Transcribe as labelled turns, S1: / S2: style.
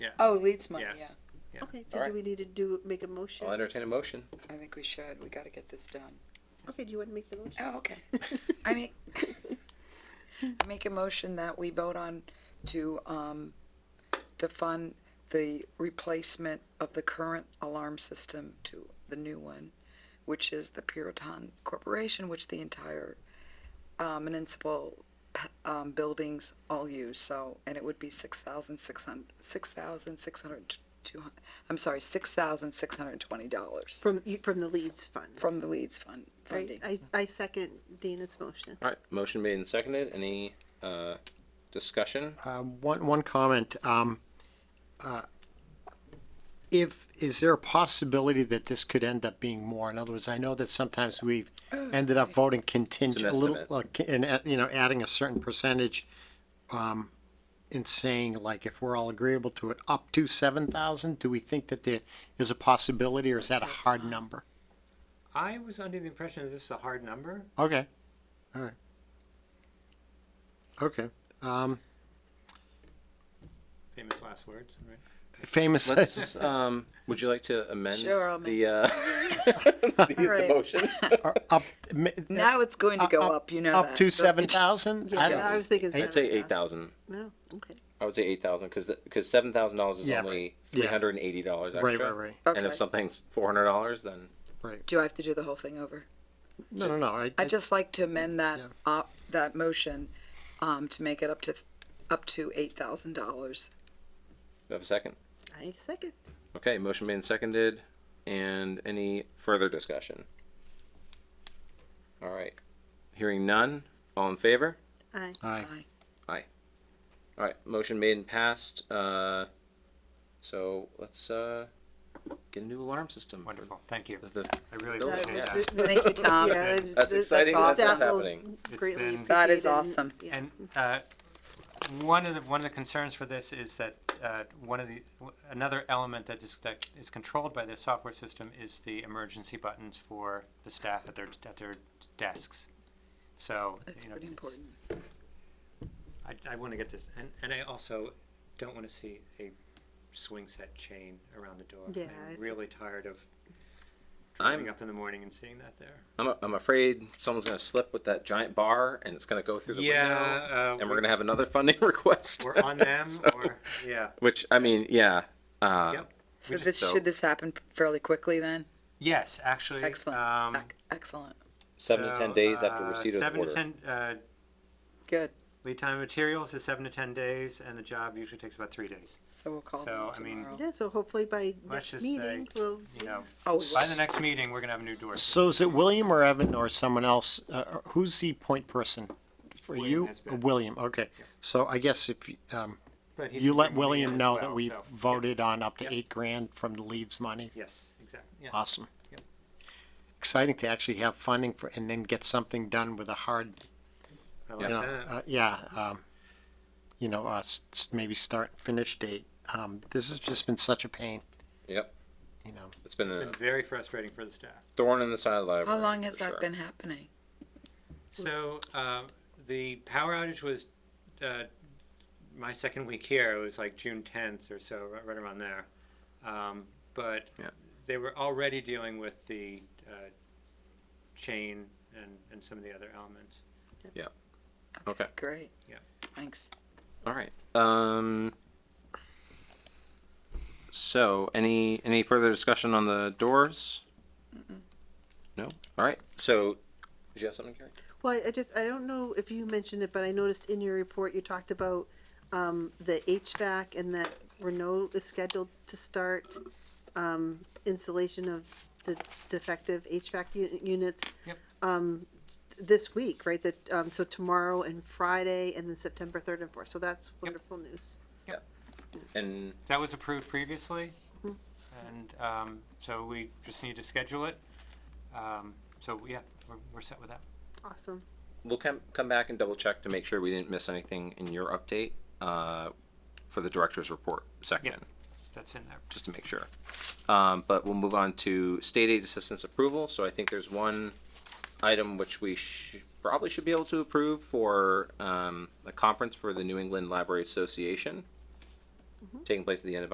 S1: Yeah.
S2: Oh, Leeds money,
S1: Yes.
S2: yeah.
S1: Yeah.
S3: Okay, so do
S4: Alright.
S3: we need to do, make a motion?
S4: I'll entertain a motion.
S2: I think we should. We got to get this done.
S3: Okay, do you want to make the motion?
S2: Oh, okay. I make, I make a motion that we vote on to, um, to fund the replacement of the current alarm system to the new one, which is the Puritan Corporation, which the entire, um, municipal, p- um, buildings all use, so, and it would be six thousand six hundred, six thousand six hundred two, I'm sorry, six thousand six hundred twenty dollars
S3: From, you- from the Leeds Fund.
S2: from the Leeds Fund funding.
S3: Right, I, I second Dana's motion.
S4: All right, motion made and seconded. Any uh, discussion?
S5: Um, one, one comment, um, uh, if, is there a possibility that this could end up being more? In other words, I know that sometimes we've ended up voting contingent, a little,
S4: estimate.
S5: like, and, uh, you know, adding a certain percentage, um, and saying like, if we're all agreeable to it, up to seven thousand, do we think that there is a possibility or is that a hard number?
S1: I was under the impression that this is a hard number.
S5: Okay, all right. Okay, um,
S1: Famous last words, right?
S5: famous.
S4: Let's. Um, would you like to amend
S2: Sure, I'll
S4: the, uh, the, the
S2: right.
S4: motion?
S5: Or up, ma-
S2: Now it's going to go up, you know
S5: up
S2: that.
S5: to
S2: It's-
S5: seven thousand.
S3: Yeah, I was thinking.
S4: I'd say eight thousand.
S3: No, okay.
S4: I would say eight thousand because because seven thousand dollars is
S5: Yeah,
S4: only
S5: Yeah.
S4: three hundred and eighty dollars
S5: Right,
S4: extra.
S5: right,
S4: And if
S2: Okay.
S4: something's four hundred dollars, then
S2: Do I have to do the whole thing over?
S5: No, no, no. I,
S2: I'd just like to amend that,
S5: Yeah.
S2: uh, that motion, um, to make it up to, up to eight thousand dollars.
S4: do I have a second.
S3: I second.
S4: Okay, motion made and seconded. And any further discussion? All right. Hearing none. All in favor?
S3: Aye.
S5: Aye.
S4: All right. Motion made and passed. Uh, so let's uh, get a new alarm system. for
S1: Wonderful. Thank you.
S4: the- the-
S1: I really
S4: No,
S1: appreciate
S4: yeah.
S1: that.
S2: Thank you, Tom.
S3: Yeah,
S1: That's
S3: that-
S4: exciting
S2: that that's
S3: staff will
S4: happening.
S3: Greatly
S1: It's been-
S3: appreciate
S2: That is
S3: it and-
S2: awesome.
S3: yeah.
S1: And uh, one of the one of the concerns for this is that uh, one of the w- another element that is that is controlled by the software system is the emergency buttons for the staff at their at their desks. So
S2: That's
S1: you know,
S2: pretty important.
S1: I, I want to get this, and, and I also don't want to see a swing set chain around the door.
S3: Yeah, I
S1: I'm
S3: think-
S1: really tired of
S4: I'm-
S1: driving up in the morning and seeing that there.
S4: I'm, I'm afraid someone's going to slip with that giant bar and it's going to go through the window.
S1: Yeah, uh,
S4: And we're going to have another funding request.
S1: we're on them,
S4: So-
S1: or yeah,
S4: Which, I mean, yeah. Uh,
S1: yep.
S2: So
S1: just-
S2: this,
S4: so-
S2: should this happen fairly quickly then?
S1: Yes, actually,
S2: Excellent,
S1: Um,
S2: Ec- excellent,
S4: Seven to
S1: so,
S4: 10 days after
S1: uh,
S4: receipt of the
S1: seven
S4: order.
S1: to ten uh,
S2: good.
S1: lead time materials is seven to ten days, and the job usually takes about three days.
S2: So we'll call
S1: So,
S2: them
S1: I mean-
S2: tomorrow.
S3: Yeah, so hopefully by
S1: Let's
S3: next
S1: just
S3: meeting,
S1: say,
S3: we'll.
S1: You know,
S2: Oh,
S1: by the next meeting, we're gonna have a new door.
S5: So is it William or Evan or someone else? Uh, or who's the point person for
S1: William
S5: you?
S1: has been.
S5: William. Okay. So I guess if you, um,
S1: But he
S5: you
S1: can
S5: let
S1: bring money in
S5: William
S1: as
S5: know
S1: well,
S5: that we
S1: so, yeah.
S5: voted on up to
S1: Yep.
S5: eight grand from the Leeds money.
S1: Yes, exactly. Yeah.
S5: Awesome.
S1: Yep.
S5: Exciting to actually have funding for and then get something done with a hard,
S1: I
S5: you
S1: like
S5: know,
S1: that.
S5: uh, yeah, um, you know, uh, s- s- maybe start and finish date. Um, this has just been such a pain,
S4: Yep.
S5: you know.
S4: It's been a
S1: Been very frustrating for the staff.
S4: thorn in the side of the
S2: How
S4: library.
S2: long has
S4: for
S2: that
S4: sure.
S2: been happening?
S1: So um, the power outage was uh, my second week here. It was like June 10th or so, right, right around there. Um, but
S4: Yeah.
S1: they were already dealing with the uh, chain and, and some of the other elements.
S4: Okay.
S2: Great.
S1: Yeah.
S2: Thanks.
S4: All right. Um. So, any any further discussion on the doors? No. All right. So, did you have something, Carrie?
S3: Well, I- I just, I don't know if you mentioned it, but I noticed in your report, you talked about, um, the HVAC and that Renault is scheduled to start, um, installation of the defective HVAC u- units.
S1: Yep.
S3: Um, this week, right, that, um, so tomorrow and Friday and then September third and fourth, so that's wonderful news.
S4: And
S1: That was approved previously, and um, so we just need to schedule it. Um, so yeah, we're, we're set with that.
S3: Awesome.
S4: we'll come come back and double check to make sure we didn't miss anything in your update uh, for the director's report section,
S1: That's in there.
S4: just to make sure. Um, but we'll move on to state aid assistance approval. So I think there's one item which we sh- probably should be able to approve for um, a conference for the New England Library Association taking place at the end of